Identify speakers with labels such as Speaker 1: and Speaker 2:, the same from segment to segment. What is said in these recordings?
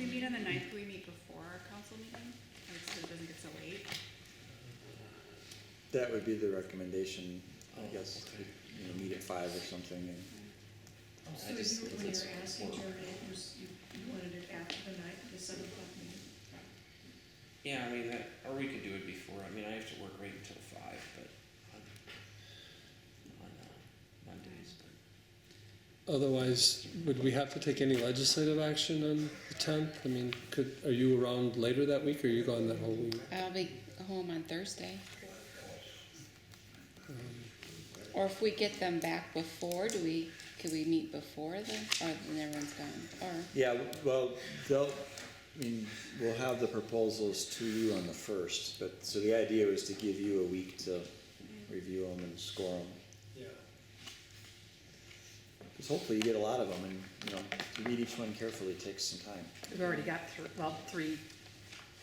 Speaker 1: meet on the ninth, can we meet before our council meeting? Like, so it doesn't get so late?
Speaker 2: That would be the recommendation, I
Speaker 3: Oh,
Speaker 2: guess,
Speaker 3: okay.
Speaker 2: you know, meet at five or something and
Speaker 3: I
Speaker 4: So you,
Speaker 3: just think
Speaker 4: when
Speaker 3: it's
Speaker 4: you're asking
Speaker 3: important.
Speaker 4: Jeremy, it was, you, you wanted it after the night, the seven o'clock meeting?
Speaker 3: Yeah, I mean, that, or we could do it before, I mean, I have to work right until five, but on, on uh, Mondays, but.
Speaker 5: Otherwise, would we have to take any legislative action on the tenth? I mean, could, are you around later that week, or are you gone that whole week?
Speaker 6: I'll be home on Thursday. Or if we get them back before, do we, could we meet before then, or then everyone's gone, or?
Speaker 2: Yeah, well, they'll, I mean, we'll have the proposals to you on the first, but, so the idea was to give you a week to review them and score them.
Speaker 7: Yeah.
Speaker 2: Because hopefully you get a lot of them and, you know, to read each one carefully takes some time.
Speaker 8: We've already got three, well, three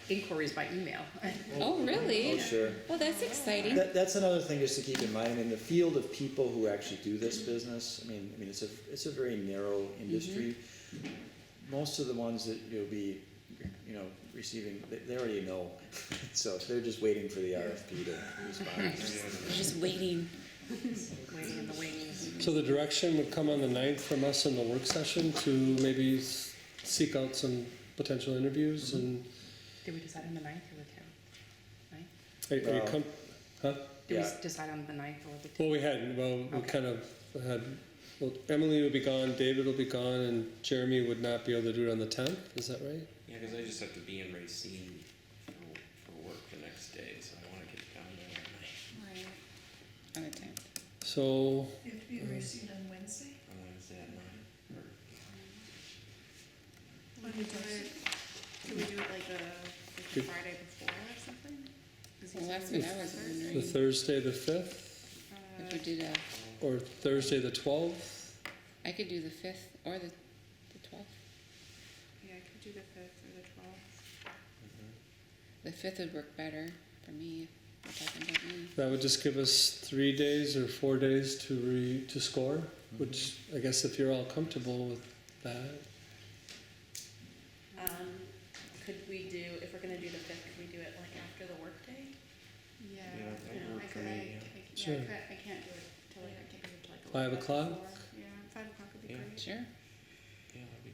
Speaker 8: inquiries by email.
Speaker 6: Oh,
Speaker 2: Oh,
Speaker 6: really?
Speaker 2: sure.
Speaker 6: Well, that's exciting.
Speaker 2: That, that's another thing just to keep in mind, in the field of people who actually do this business, I mean, I mean, it's a, it's a very narrow industry. Most of the ones that you'll be, you know, receiving, they, they already know, so they're just waiting for the RFP to respond.
Speaker 6: Just waiting.
Speaker 8: Waiting in the wings.
Speaker 5: So the direction would come on the ninth from us in the work session to maybe s- seek out some potential interviews and,
Speaker 8: Did we decide on the ninth or the tenth? Ninth?
Speaker 5: are are you
Speaker 2: Well-
Speaker 5: com- huh?
Speaker 8: Did we
Speaker 2: Yeah.
Speaker 8: s- decide on the ninth or the tenth?
Speaker 5: Well, we hadn't, well, we
Speaker 8: Okay.
Speaker 5: kind of had, well, Emily would be gone, David will be gone, and Jeremy would not be able to do it on the tenth, is that right?
Speaker 3: Yeah, cause I just have to be in Racine for, for work the next day, so I wanna get down there at night
Speaker 1: Right.
Speaker 6: On the tenth.
Speaker 5: So, uh,
Speaker 4: You have to be received on Wednesday?
Speaker 3: on Wednesday at nine, or
Speaker 1: Can we do it, can we do it like the, like the
Speaker 5: Good.
Speaker 1: Friday before or something? 'Cause he's
Speaker 6: Well, that's
Speaker 1: on
Speaker 6: what I was
Speaker 1: Thursday.
Speaker 5: the
Speaker 6: wondering,
Speaker 5: Thursday the fifth,
Speaker 6: if we did a,
Speaker 5: or Thursday the twelfth?
Speaker 6: I could do the fifth or the, the twelfth.
Speaker 1: Uh, Yeah, I could do the fifth or the twelfth.
Speaker 6: The fifth would work better for me, if we're talking about me.
Speaker 5: That would just give us three days or four days to re, to score, which I guess if you're all comfortable with that.
Speaker 9: Um, could we do, if we're gonna do the fifth, could we do it like after the workday?
Speaker 1: Yeah.
Speaker 3: Yeah, that
Speaker 1: I
Speaker 3: worked
Speaker 1: could-
Speaker 3: for me,
Speaker 1: I-
Speaker 3: yeah.
Speaker 1: I- Yeah,
Speaker 5: Sure.
Speaker 1: I could, I can't do it till like, I can't do it till like.
Speaker 5: Five
Speaker 1: 11
Speaker 5: o'clock?
Speaker 1: before. Yeah, five o'clock would be
Speaker 3: Yeah.
Speaker 1: great.
Speaker 6: Sure.
Speaker 3: yeah, that'd be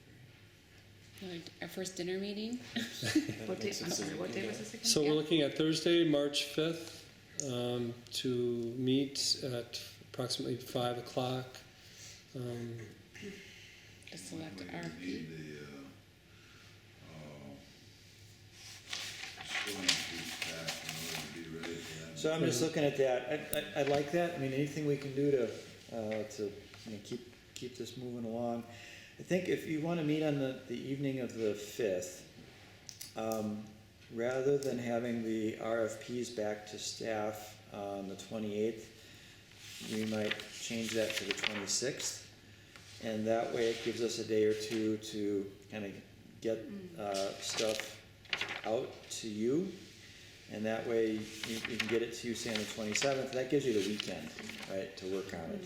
Speaker 3: great.
Speaker 6: Like, Our first dinner meeting,
Speaker 3: That
Speaker 8: What day,
Speaker 3: makes
Speaker 8: I'm
Speaker 3: sense if
Speaker 8: sorry,
Speaker 3: we
Speaker 8: what
Speaker 3: can
Speaker 8: day
Speaker 3: do
Speaker 8: was
Speaker 3: it.
Speaker 8: this again?
Speaker 5: So we're
Speaker 6: Yeah.
Speaker 5: looking at Thursday, March fifth, um, to meet at approximately five o'clock. Um,
Speaker 6: just select
Speaker 10: We
Speaker 6: RFP.
Speaker 10: Need the, uh, uh, scoring sheet back in order to be ready for that.
Speaker 2: So I'm just looking at that, I, I, I like that, I mean, anything we can do to, uh, to, you know, keep, keep this moving along. I think if you wanna meet on the, the evening of the fifth, um, rather than having the RFPs back to staff on the twenty-eighth, we might change that to the twenty-sixth. And that way it gives us a day or two to kinda get, uh, stuff out to you. And that way, you, you can get it to you, say, on the twenty-seventh, that gives you the weekend, right, to work on it.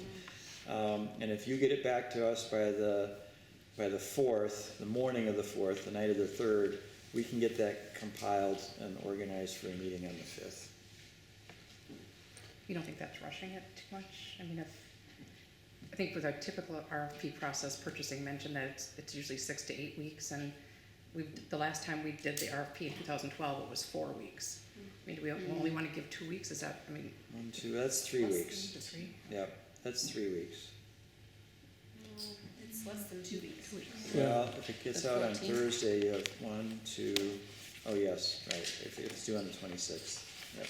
Speaker 2: Um, and if you get it back to us by the, by the fourth, the morning of the fourth, the night of the third, we can get that compiled and organized for a meeting on the fifth.
Speaker 8: You don't think that's rushing it too much? I mean, if, I think with our typical RFP process, purchasing mentioned that it's, it's usually six to eight weeks, and we, the last time we did the RFP in two thousand twelve, it was four weeks. I mean, do we only wanna give two weeks, is that, I mean,
Speaker 2: One, two, that's three
Speaker 9: Mm-hmm. Less
Speaker 2: weeks,
Speaker 8: the three?
Speaker 2: yep, that's three weeks.
Speaker 9: It's less than two weeks.
Speaker 2: Well, if it gets
Speaker 6: The
Speaker 2: out on
Speaker 6: 14th.
Speaker 2: Thursday, you have one, two, oh yes, right, if it's due on the twenty-sixth, yep.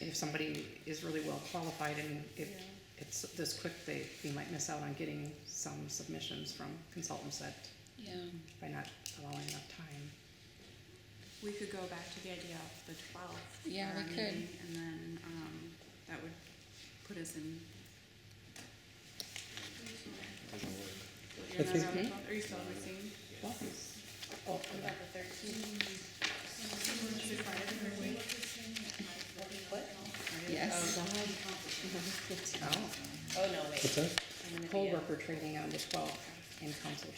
Speaker 8: And if somebody is really well qualified and if it's this quick, they, we might miss out on getting some submissions from consultants that,
Speaker 6: Yeah,
Speaker 8: by not allowing enough time.
Speaker 1: We could go back to the idea of the twelfth.
Speaker 6: Yeah, we could.
Speaker 1: And then, um, that would put us in.
Speaker 3: Doesn't work.
Speaker 1: You're not
Speaker 5: think-
Speaker 1: around the 12th? Are you still missing?
Speaker 9: What about the thirteenth? What?
Speaker 6: yes.
Speaker 8: Oh,
Speaker 9: Oh, no, wait.
Speaker 5: what's that?
Speaker 9: I'm gonna be
Speaker 8: poll
Speaker 9: at-
Speaker 8: worker training on the twelfth in council